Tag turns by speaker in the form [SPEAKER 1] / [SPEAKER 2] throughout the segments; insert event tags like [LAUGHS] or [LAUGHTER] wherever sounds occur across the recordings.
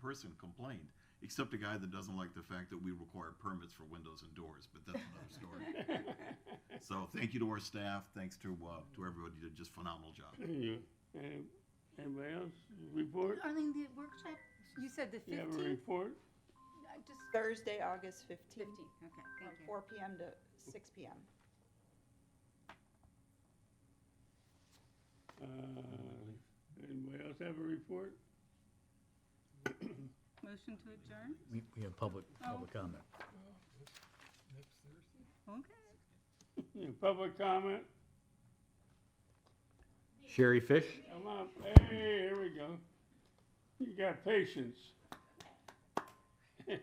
[SPEAKER 1] person complained, except a guy that doesn't like the fact that we require permits for windows and doors, but that's another
[SPEAKER 2] [LAUGHS]
[SPEAKER 1] story. So thank you to our staff, thanks to, uh, to everybody, you did just phenomenal job.
[SPEAKER 2] Yeah. Uh, Anybody else report?
[SPEAKER 3] I mean, the workshop, you said the
[SPEAKER 2] You have a
[SPEAKER 3] fifteenth?
[SPEAKER 2] report?
[SPEAKER 3] Just
[SPEAKER 4] Thursday, August fifteenth,
[SPEAKER 3] fifteenth, okay,
[SPEAKER 4] from
[SPEAKER 3] thank you.
[SPEAKER 4] four PM to six PM.
[SPEAKER 2] Uh, Anybody else have a report?
[SPEAKER 3] Motion to adjourn?
[SPEAKER 5] We, we have public, public comment.
[SPEAKER 3] Okay.
[SPEAKER 2] Yeah, Public comment?
[SPEAKER 5] Sherry Fish?
[SPEAKER 2] Come up. Hey, here we go. You got patience.
[SPEAKER 6] Sorry,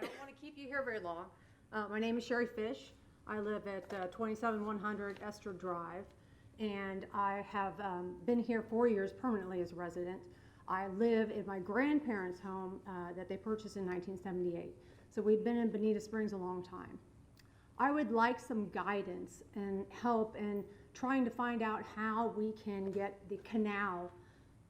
[SPEAKER 6] I don't want to keep you here very long. Uh, my name is Sherry Fish. I live at uh, 27100 Esther Drive, and I have um, been here four years permanently as a resident. I live in my grandparents' home uh, that they purchased in 1978. So we've been in Bonita Springs a long time. I would like some guidance and help in trying to find out how we can get the canal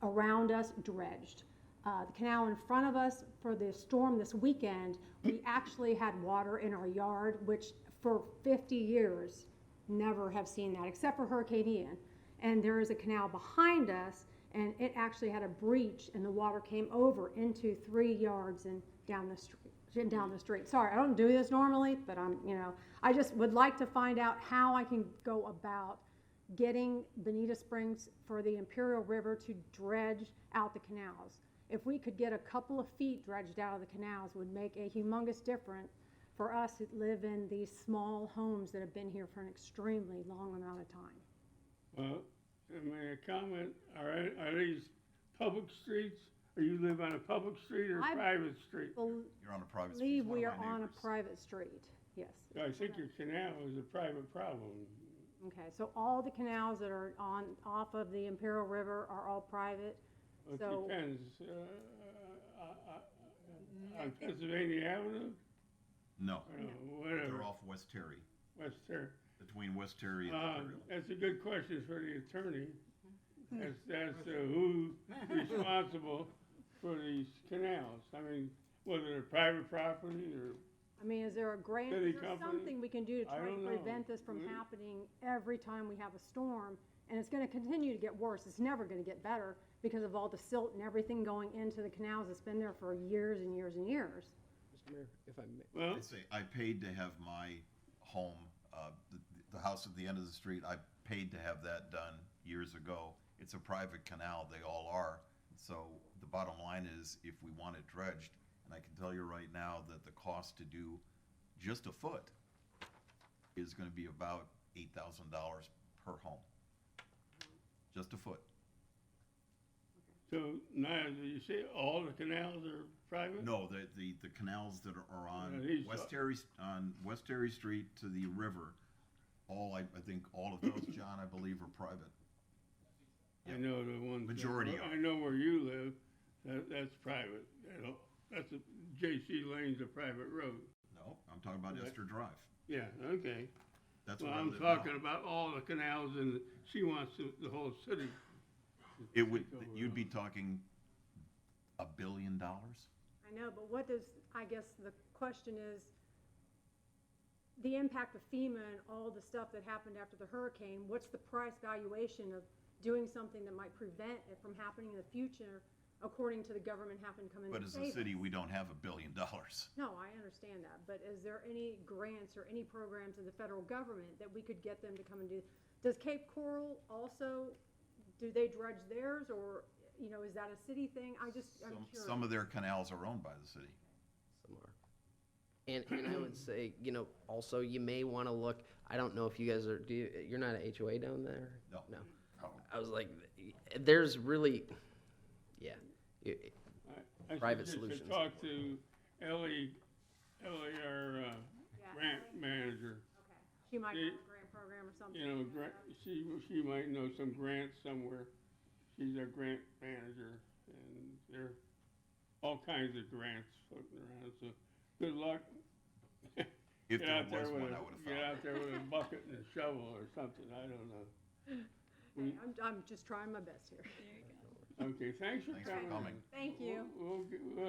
[SPEAKER 6] around us dredged. Uh, the canal in front of us for the storm this weekend, we actually had water in our yard, which for 50 years never have seen that, except for Hurricane Ian. And there is a canal behind us, and it actually had a breach, and the water came over into three yards and down the street. Down the street. Sorry, I don't do this normally, but I'm, you know, I just would like to find out how I can go about getting Bonita Springs for the Imperial River to dredge out the canals. If we could get a couple of feet dredged out of the canals would make a humongous difference for us that live in these small homes that have been here for an extremely long amount of time.
[SPEAKER 2] Well, I mean, a comment, all right, are these public streets? Or you live on a public street or a
[SPEAKER 6] I-
[SPEAKER 2] private street?
[SPEAKER 1] You're on a private. street.
[SPEAKER 6] Believe
[SPEAKER 1] One of
[SPEAKER 6] we
[SPEAKER 1] my
[SPEAKER 6] are on a
[SPEAKER 1] neighbors.
[SPEAKER 6] private street, yes.
[SPEAKER 2] I think your canal is a private problem.
[SPEAKER 6] Okay, so all the canals that are on, off of the Imperial River are all private?
[SPEAKER 2] It
[SPEAKER 6] So-
[SPEAKER 2] depends, uh, uh,
[SPEAKER 6] Mm,
[SPEAKER 2] uh, uh, on Pennsylvania Avenue,
[SPEAKER 1] No,
[SPEAKER 2] or Uh, whatever,
[SPEAKER 1] they're off West Terry,
[SPEAKER 2] West Terry.
[SPEAKER 1] between West Terry and
[SPEAKER 2] Uh,
[SPEAKER 1] Imperial.
[SPEAKER 2] That's a good question for the attorney, as, as to who's responsible for these canals. I mean, whether they're private property or,
[SPEAKER 6] I mean, is there a grant,
[SPEAKER 2] City
[SPEAKER 6] is there
[SPEAKER 2] company?
[SPEAKER 6] something we can do to
[SPEAKER 2] I
[SPEAKER 6] try
[SPEAKER 2] don't
[SPEAKER 6] and
[SPEAKER 2] know. Mm-hmm.
[SPEAKER 6] prevent this from
[SPEAKER 2] We-
[SPEAKER 6] happening every time we have a storm? And it's gonna continue to get worse, it's never gonna get better because of all the silt and everything going into the canals that's been there for years and years and years.
[SPEAKER 7] Mr. Mayor, if I may.
[SPEAKER 2] well,
[SPEAKER 1] I say, I paid to have my home, uh, the, the house at the end of the street, I paid to have that done years ago. It's a private canal, they all are. So the bottom line is, if we want it dredged, and I can tell you right now that the cost to do just a foot is gonna be about eight thousand dollars per home. Just a foot.
[SPEAKER 2] so now, you say all the canals are private?
[SPEAKER 1] No, the, the, the canals that are- are
[SPEAKER 2] Yeah, uh,
[SPEAKER 1] on
[SPEAKER 2] these are-
[SPEAKER 1] West Terry, on West Terry Street to the river, all, I, I think all of
[SPEAKER 2] [COUGHS]
[SPEAKER 1] those, John, I believe are private.
[SPEAKER 2] I know the ones. that-
[SPEAKER 1] Majority are.
[SPEAKER 2] I know where you live, that, that's private, you know, that's a, J.C. Lane's a private road.
[SPEAKER 1] No, I'm talking about
[SPEAKER 2] Okay.
[SPEAKER 1] Esther Drive.
[SPEAKER 2] Yeah, okay.
[SPEAKER 1] That's
[SPEAKER 2] Well,
[SPEAKER 1] where I
[SPEAKER 2] I'm
[SPEAKER 1] live now.
[SPEAKER 2] talking about all the canals and she wants the, the whole city. to
[SPEAKER 1] It would,
[SPEAKER 2] take over.
[SPEAKER 1] you'd be talking a billion dollars?
[SPEAKER 6] I know, but what does, I guess the question is, the impact of FEMA and all the stuff that happened after the hurricane, what's the price valuation of doing something that might prevent it from happening in the future, according to the government having to come in
[SPEAKER 1] But
[SPEAKER 6] and
[SPEAKER 1] as
[SPEAKER 6] save
[SPEAKER 1] a
[SPEAKER 6] us?
[SPEAKER 1] city, we don't have a billion dollars.
[SPEAKER 6] No, I understand that, but is there any grants or any programs in the federal government that we could get them to come and do? Does Cape Coral also, do they dredge theirs, or, you know, is that a city thing? I just, I'm
[SPEAKER 1] Some-
[SPEAKER 6] curious.
[SPEAKER 1] Some of their canals are owned by the city.
[SPEAKER 7] Some are. And, and I would say, you know, also, you may want to look, I don't know if you guys are, do you, you're not an HOA down there?
[SPEAKER 1] No.
[SPEAKER 7] No.
[SPEAKER 1] Oh.
[SPEAKER 7] I was like, there's really, yeah. It-
[SPEAKER 2] I- I
[SPEAKER 7] Private
[SPEAKER 2] suggest you
[SPEAKER 7] solutions.
[SPEAKER 2] Talk to Ellie, Ellie, our, uh,
[SPEAKER 6] Yeah.
[SPEAKER 2] grant manager.
[SPEAKER 6] Okay. She might
[SPEAKER 2] Yeah.
[SPEAKER 6] have a grant program or something.
[SPEAKER 2] You know, grant, she, she might know some grants somewhere. She's our grant manager and there are all kinds of grants floating around, so good luck.
[SPEAKER 1] If
[SPEAKER 2] Get
[SPEAKER 1] there
[SPEAKER 2] out
[SPEAKER 1] was
[SPEAKER 2] with
[SPEAKER 1] one,
[SPEAKER 2] a-
[SPEAKER 1] I would have
[SPEAKER 2] Get
[SPEAKER 1] found
[SPEAKER 2] out there with a bucket and a shovel or something, I don't know.
[SPEAKER 6] Okay, I'm, I'm just trying my best here.
[SPEAKER 2] Okay, thanks for
[SPEAKER 1] Thanks for
[SPEAKER 2] coming.
[SPEAKER 1] coming.
[SPEAKER 2] in.
[SPEAKER 6] Thank you.
[SPEAKER 2] We'll- we'll get- we'll